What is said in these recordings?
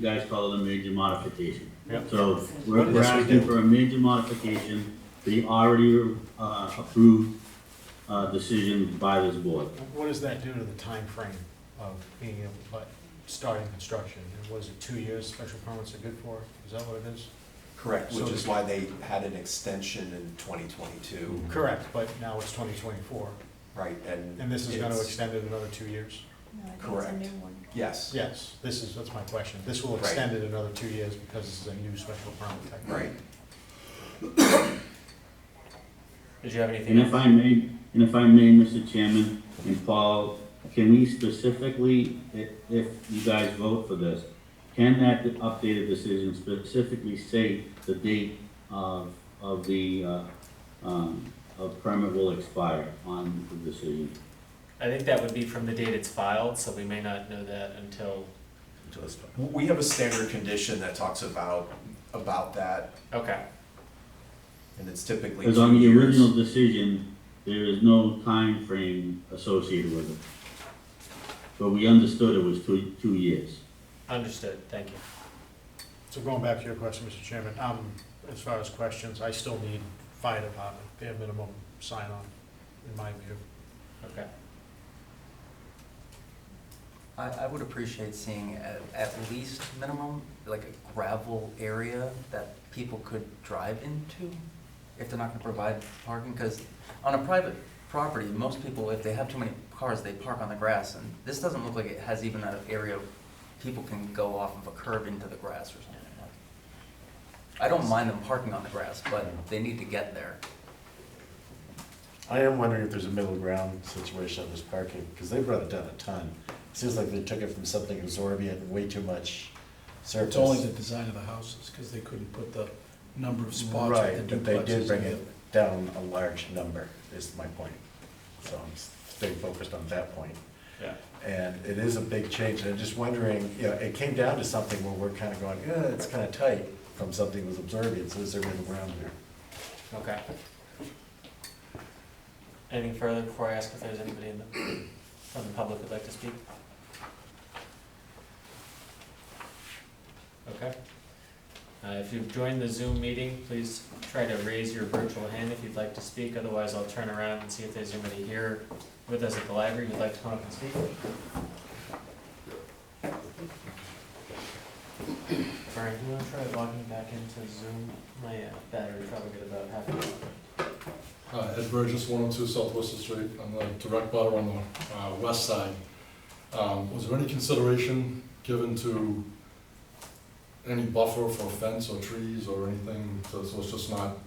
you guys call it a major modification. Yep. So we're Yes, we're we asking do. for a major modification, to the already uh, approved uh, decision by this board. What does that do to the time frame of being able, like, starting construction? And was it two years special permits are good for? Is that what it is? Correct, which So- is why they had an extension in twenty twenty-two, Correct, but now it's twenty twenty-four, right, and. and this is gonna it's- extend it another two years? No, I think Correct. it's a new one. Yes, Yes, this is, that's my question. This will Right. extend it another two years because this is a new special permit type. right. Did you have And anything? if I may, and if I may, Mr. Chairman and Paul, can we specifically, if, if you guys vote for this, can that updated decision specifically say the date of, of the, uh, um, of permit will expire on the decision? I think that would be from the date it's filed, so we may not know that until, We have a standard condition that talks about, about that, okay, and it's typically Because on two the years. original decision, there is no time frame associated with it. But we understood it was two, two years. understood, thank you. So going back to your question, Mr. Chairman, um, as far as questions, I still need fire department, bare minimum sign-on, in my view. Okay, I, I would appreciate seeing at, at least minimum, like a gravel area that people could drive into if they're not gonna provide parking, because on a private property, most people, if they have too many cars, they park on the grass, and this doesn't look like it has even an area people can go off of a curb into the grass or something like that. I don't mind them parking on the grass, but they need to get there. I am wondering if there's a middle ground situation on this parking, because they brought it down a ton. Seems like they took it from something absorbent, way too much surface. It's only the design of the houses, because they couldn't put the number of spots Right, with the but they did duplexes bring in there. it down a large number, is my point. So I'm staying focused on that point. yeah. And it is a big change, and I'm just wondering, you know, it came down to something where we're kind of going, eh, it's kind of tight from something that was absorbent, so is there middle ground there? Okay. Anything further before I ask if there's anybody in the, from the public who'd like to speak? Okay. Uh, if you've joined the Zoom meeting, please try to raise your virtual hand if you'd like to speak, otherwise I'll turn around and see if there's anybody here with us at the library who'd like to come up and speak. Brian, you wanna try logging back into Zoom? My uh, battery probably got about half an hour. Hi, Ed Burgess, 102 Southwest Street, I'm the direct butter on the uh, west side. Um, Was there any consideration given to any buffer for fence or trees or anything, so so it's just not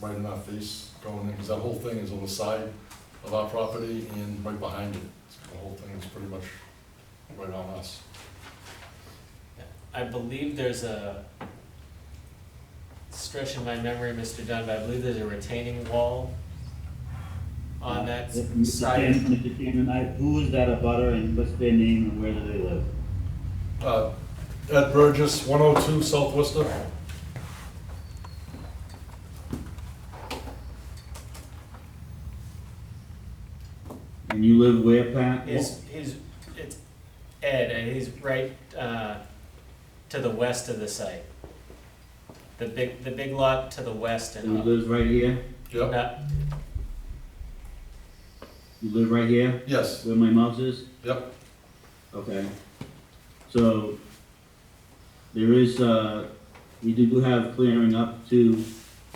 right in our face going in? Because that whole thing is on the side of our property and right behind it. The whole thing is pretty much right on us. I believe there's a stretch in my memory, Mr. Dunn, but I believe there's a retaining wall on that Uh, Mr. side. Chairman- Mr. Chairman, I, who is that a butter and what's their name and where do they live? Uh, Ed Burgess, 102 Southwester. And you live where, Pat? Is, is, it's Ed, and he's right, uh, to the west of the site. The big, the big lot to the west Who and up. lives right here? Yep, Uh, You live right here, yes, where my mouse is? yep, Okay. So, there is, uh, we do have clearing up to,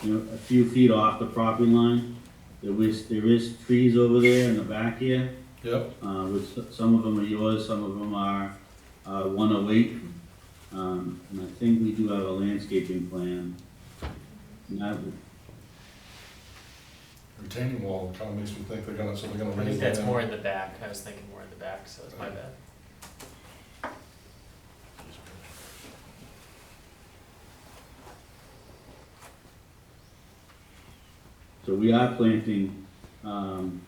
you know, a few feet off the property line. There is, there is trees over there in the back here. yep, uh, which s- some of them are yours, some of them are uh, 108. Um, And I think we do have a landscaping plan. And that would- retaining wall, kind of makes me think they're gonna, so they're gonna I raise think it that's down. more in the back, I was thinking more in the back, so it's my bad. So we are planting um,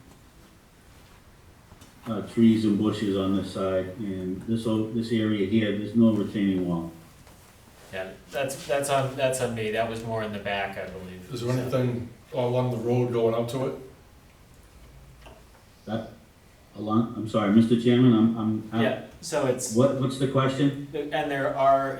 uh, trees and bushes on this side, and this, o- this area here, there's no retaining wall. Yeah, that's, that's on, that's on me, that was more in the back, I believe. Is there so. anything along the road going up to it? That, along, I'm sorry, Mr. Chairman, I'm, I'm, Yeah, so it's, what, what's the question? and there are